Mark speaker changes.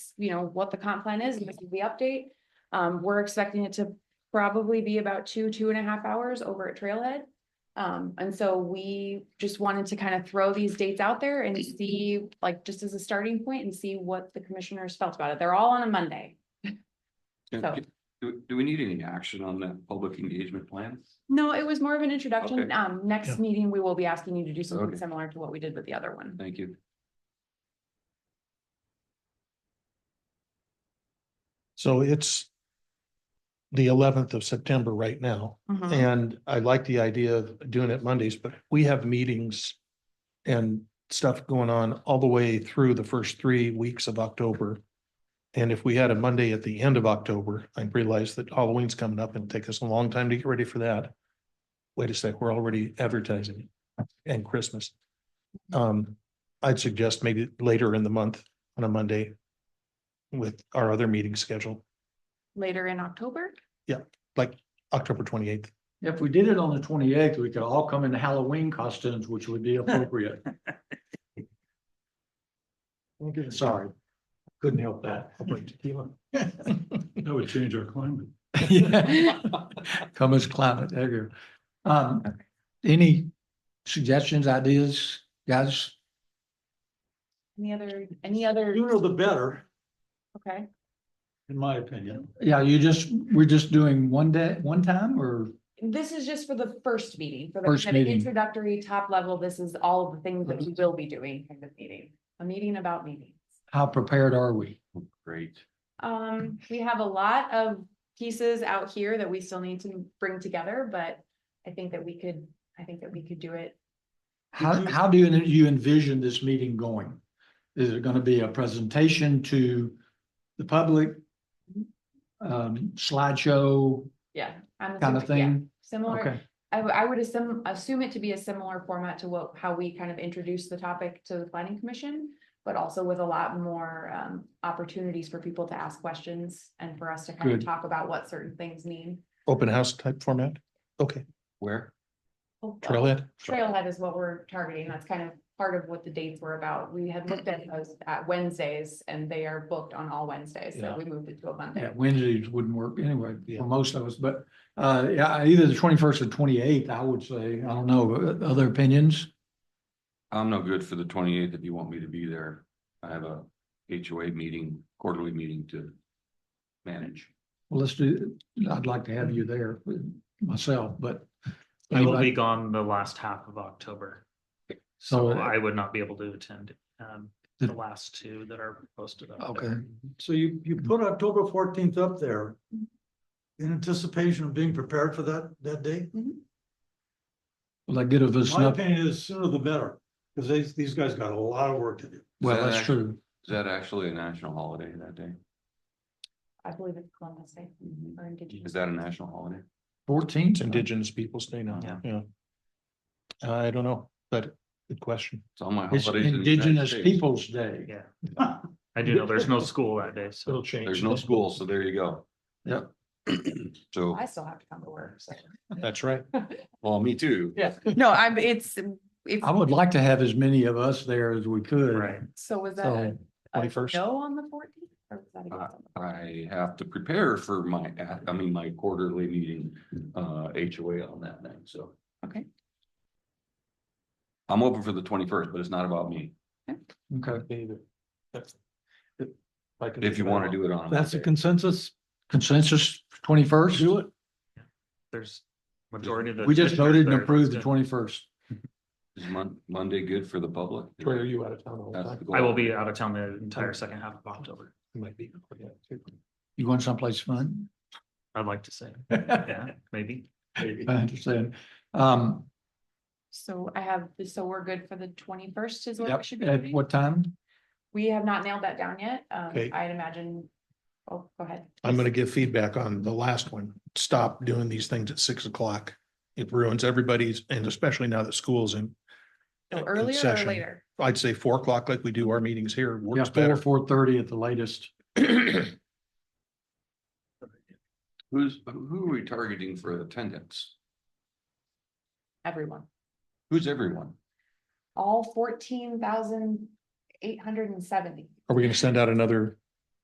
Speaker 1: you know, what the comp plan is, and this is the update. Um, we're expecting it to probably be about two, two and a half hours over at Trailhead. Um, and so we just wanted to kind of throw these dates out there and see, like, just as a starting point and see what the commissioners felt about it. They're all on a Monday.
Speaker 2: Yeah,
Speaker 1: So-
Speaker 2: Do, do we need any action on that public engagement plan?
Speaker 1: No, it was more of an introduction.
Speaker 2: Okay.
Speaker 1: Um, next meeting, we will be asking you to do something
Speaker 2: Okay.
Speaker 1: similar to what we did with the other one.
Speaker 2: Thank you.
Speaker 3: So it's the eleventh of September right now,
Speaker 1: Mhm.
Speaker 3: and I like the idea of doing it Mondays, but we have meetings and stuff going on all the way through the first three weeks of October. And if we had a Monday at the end of October, I realize that Halloween's coming up and it'll take us a long time to get ready for that. Wait a sec, we're already advertising it, and Christmas. Um, I'd suggest maybe later in the month on a Monday with our other meeting scheduled.
Speaker 1: Later in October?
Speaker 3: October twenty eighth.
Speaker 4: If we did it on the twenty eighth, we could all come in Halloween costumes, which would be appropriate. Sorry, couldn't help that. That would change our climate. Come as climate, there you go. Um, any suggestions, ideas, guys?
Speaker 1: Any other, any other,
Speaker 4: Sooner the better,
Speaker 1: okay?
Speaker 4: in my opinion. Yeah, you just, we're just doing one day, one time or?
Speaker 1: This is just for the first meeting, for the
Speaker 4: First
Speaker 1: kind of
Speaker 4: meeting.
Speaker 1: introductory top level. This is all of the things that we will be doing in this meeting, a meeting about meetings.
Speaker 4: How prepared are we?
Speaker 2: Great.
Speaker 1: Um, we have a lot of pieces out here that we still need to bring together, but I think that we could, I think that we could do it.
Speaker 4: How, how do you you envision this meeting going? Is it gonna be a presentation to the public? Um, slideshow
Speaker 1: Yeah. I'm
Speaker 4: kind of
Speaker 1: assuming- yeah,
Speaker 4: thing?
Speaker 1: Similar,
Speaker 4: Okay,
Speaker 1: I, w- I would assume, assume it to be a similar format to what, how we kind of introduce the topic to the planning commission. But also with a lot more, um, opportunities for people to ask questions and for us to kind of
Speaker 4: Good.
Speaker 1: talk about what certain things mean.
Speaker 3: Open house type format? Okay,
Speaker 2: Where?
Speaker 1: Oh, uh,
Speaker 3: trailhead.
Speaker 1: Trailhead is what we're targeting. That's kind of part of what the dates were about. We had looked at those at Wednesdays and they are booked on all Wednesdays, so
Speaker 4: Yeah.
Speaker 1: we moved it to a Monday.
Speaker 4: yeah, Wednesdays wouldn't work anyway
Speaker 3: Yeah.
Speaker 4: for most of us, but, uh, yeah, either the twenty-first or twenty-eighth, I would say, I don't know, uh, other opinions?
Speaker 2: I'm no good for the twenty eighth if you want me to be there. I have a HOA meeting, quarterly meeting to manage.
Speaker 4: Well, let's do, I'd like to have you there myself, but.
Speaker 5: I will be gone the last half of October, so
Speaker 4: So,
Speaker 5: I would not be able to attend um
Speaker 4: The-
Speaker 5: the last two that are posted. up there.
Speaker 4: okay,
Speaker 6: So you, you put October fourteenth up there in anticipation of being prepared for that, that day?
Speaker 4: will that get of us?
Speaker 6: My opinion is sooner the better, because these, these guys got a lot of work to do.
Speaker 4: Well, that's true.
Speaker 2: Is that actually a national holiday that day?
Speaker 1: I believe it's Columbus Day
Speaker 4: Mm-hmm.
Speaker 1: or Indigenous.
Speaker 2: Is that a national holiday?
Speaker 4: Fourteenth?
Speaker 3: It's Indigenous Peoples Day now,
Speaker 5: Yeah.
Speaker 3: yeah. I don't know, but good question.
Speaker 2: It's all my
Speaker 4: It's
Speaker 2: holidays. in the United
Speaker 4: Indigenous
Speaker 2: States.
Speaker 4: Peoples' Day.
Speaker 5: Yeah, I do know there's no school that day, so
Speaker 3: It'll change.
Speaker 2: There's no school, so there you go.
Speaker 4: Yep.
Speaker 2: So,
Speaker 1: I still have to come to work, so.
Speaker 3: That's right.
Speaker 2: well, me too.
Speaker 1: Yeah. No, I'm, it's, it's,
Speaker 4: I would like to have as many of us there as we could.
Speaker 5: right.
Speaker 1: so was that a
Speaker 4: So,
Speaker 1: a
Speaker 3: 21st?
Speaker 1: no on the fourteenth? Or was that against on the-
Speaker 2: I have to prepare for my, I mean, my quarterly meeting, uh, HOA on that night, so.
Speaker 1: Okay.
Speaker 2: I'm open for the twenty-first, but it's not about me.
Speaker 4: okay,
Speaker 2: If you want to do it on.
Speaker 6: That's a consensus.
Speaker 4: consensus twenty-first? Do it.
Speaker 5: There's majority of the.
Speaker 4: We just voted and approved the
Speaker 5: twenty.
Speaker 4: twenty-first.
Speaker 2: Is Mon- Monday good for the public?
Speaker 3: Troy, are you out of town all the
Speaker 2: That's the
Speaker 3: time?
Speaker 2: goal.
Speaker 5: I will be out of town the entire second half of October,
Speaker 3: You might be. yeah, too.
Speaker 4: You going someplace fun?
Speaker 5: I'd like to say,
Speaker 4: I
Speaker 5: yeah, maybe.
Speaker 4: understand. Um,
Speaker 1: So I have, so we're good for the twenty-first is what
Speaker 4: yep,
Speaker 1: we should be
Speaker 4: at
Speaker 1: doing?
Speaker 4: what time?
Speaker 1: We have not nailed that down yet. Um,
Speaker 3: Okay.
Speaker 1: I'd imagine, oh, go ahead.
Speaker 3: I'm gonna give feedback on the last one. Stop doing these things at six o'clock. It ruins everybody's, and especially now that school's in. uh,
Speaker 1: So
Speaker 3: in
Speaker 1: earlier or
Speaker 3: session.
Speaker 1: later?
Speaker 3: I'd say four o'clock like we do our meetings here
Speaker 4: Yeah,
Speaker 3: works
Speaker 4: four,
Speaker 3: better.
Speaker 4: four thirty at the latest.
Speaker 2: Who's, who are we targeting for attendance?
Speaker 1: Everyone.
Speaker 2: Who's everyone?
Speaker 1: all fourteen thousand eight hundred and seventy.
Speaker 3: Are we gonna send out another